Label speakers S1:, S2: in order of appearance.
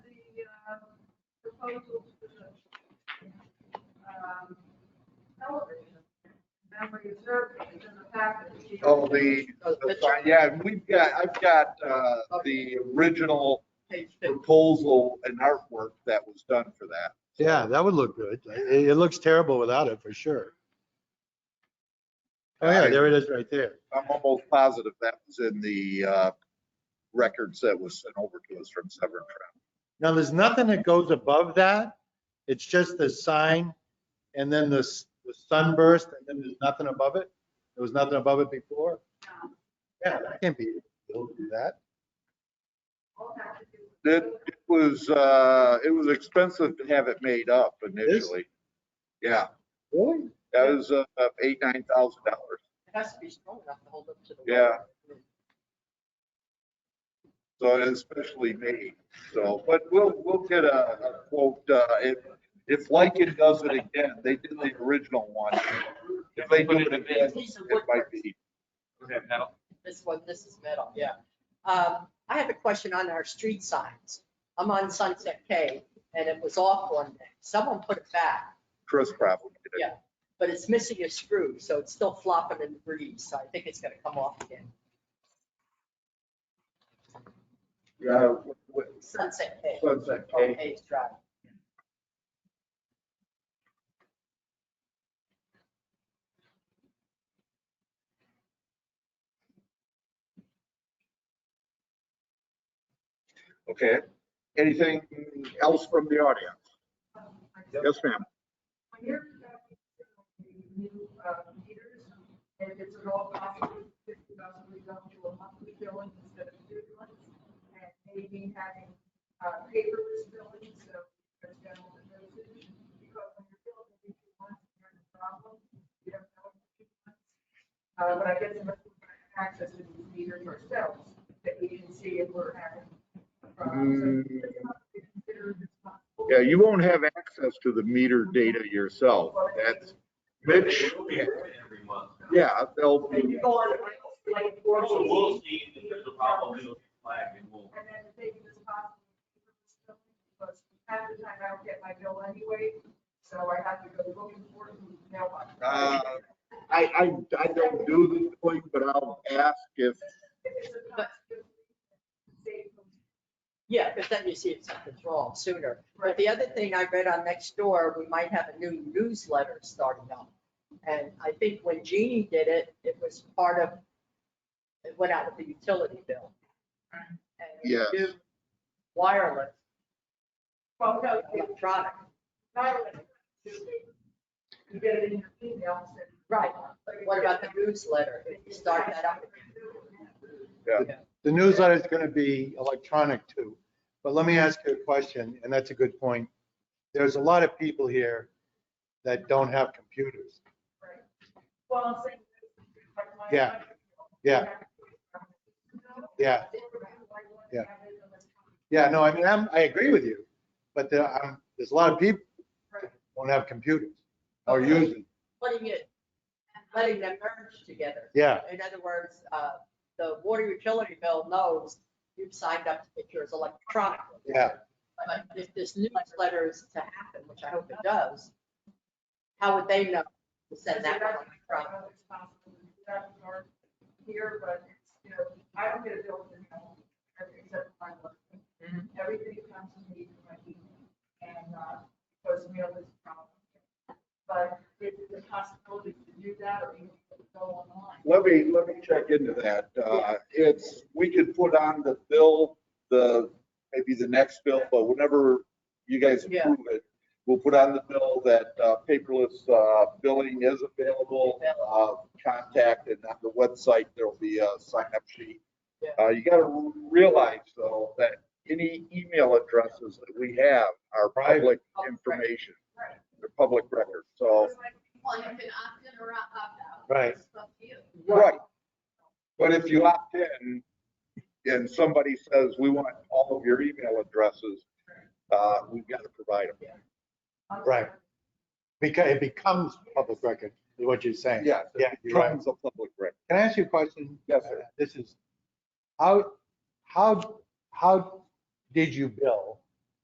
S1: of um, proposals for the um, television. And we observed it in the package.
S2: Oh, the, the fi- yeah, we've got, I've got uh, the original proposal and artwork that was done for that.
S3: Yeah, that would look good. It, it looks terrible without it, for sure. Oh, yeah, there it is right there.
S2: I'm almost positive that was in the uh, records that was sent over to us from Severn Trent.
S3: Now, there's nothing that goes above that. It's just the sign and then the, s- the sunburst and then there's nothing above it. There was nothing above it before. Yeah, that can't be, don't do that.
S1: All had to do with-
S2: It it was, uh, it was expensive to have it made up initially. Yeah,
S3: Really?
S2: that was uh, eight, nine thousand dollars.
S4: It has to be strong enough to hold up to the.
S2: Yeah.
S4: wall.
S2: So and especially me. So, but we'll, we'll get a a quote, uh, if, if Lycan does it again, they did the original one. If they do it again, it might be.
S5: Okay, now,
S4: This one, this is metal, yeah. Um, I have a question on our street signs. I'm on Sunset K and it was off one day. Someone put it back,
S2: Chris probably did. it.
S4: but it's missing a screw, so it's still flopping in the breeze. So I think it's gonna come off again.
S2: Yeah. what- what-
S4: Sunset K.
S2: Sunset
S4: on
S2: Cave.
S4: Hayes Drive.
S2: Okay. Anything else from the audience?
S1: um,
S2: Yes, ma'am.
S1: When you're talking to the new uh, meters, and it's at all possible, fifty thousand, we go to a monthly billing instead of two months. And maybe having uh, paperless billing, so there's general usage, because when you're billing every two months, you're in a problem. You don't know it for two months. Uh, But I guess unless we have access to these meters ourselves, that we can see if we're having problems. So it's not considered responsible.
S2: Mm. Yeah, you won't have access to the meter data yourself. That's, Mitch,
S5: It'll be every month.
S2: yeah, they'll,
S1: And you go on like four.
S5: So we'll see if there's a problem, it'll be flagged and we'll.
S1: And then the thing is possible, because half the time I don't get my bill anyway, so I have to go looking for it in the mailbox.
S2: uh, I, I, I don't do this thing, but I'll ask
S1: If
S2: if
S1: it's a constant, save them.
S4: Yeah, because then you see if something's wrong sooner. But the other thing I read on next door, we might have a new newsletter starting up. And I think when Jeannie did it, it was part of, it went out with the utility bill. And
S2: Yes.
S4: new Wireless,
S1: Well, no, it's
S4: electronic,
S1: not, you get it in your email, so.
S4: right. What about the newsletter? If you start that up,
S3: The newsletter is going to be electronic too. But let me ask you a question, and that's a good point. There's a lot of people here that don't have computers.
S1: Right. Well, I'm saying. like, my-
S3: Yeah. Yeah. Yeah. Yeah. Yeah, no, I mean, I'm, I agree with you, but there, um, there's a lot of people that don't have computers or use them.
S4: putting it, letting them merge together.
S3: Yeah,
S4: In other words, uh, the water utility bill knows you've signed up to get yours electronically.
S3: yeah,
S4: But if this newsletter is to happen, which I hope it does, how would they know to send that one electronically?
S1: Here, but it's, you know, I don't get a bill from home, except for my work.
S4: Mm-hmm.
S1: Everything comes to me from my email, and, uh, because mail is a problem. But if the possibility to do that, or even go online.
S2: Let me, let me check into that. Uh, It's, we could put on the bill, the, maybe the next bill, but whenever you guys
S4: Yeah.
S2: approve it, we'll put on the bill that uh, paperless uh, billing is available. Uh, Contact and on the website, there'll be a sign-up sheet.
S4: Yeah.
S2: Uh, You got to realize though, that any email addresses that we have are public information.
S1: Right.
S2: They're public record, so.
S1: It's like,
S6: Well, you can opt in or opt out.
S3: Right.
S6: It's up to you.
S2: Right. But if you opt in and somebody says, we want all of your email addresses, uh, we've got to provide them.
S1: I'm-
S3: Right. because it becomes public record, is what you're saying.
S2: Yes,
S3: Yeah,
S2: it
S3: you're right.
S2: becomes a public record.
S3: Can I ask you a question? Uh,
S2: Yes, sir.
S3: This is, how, how, how did you bill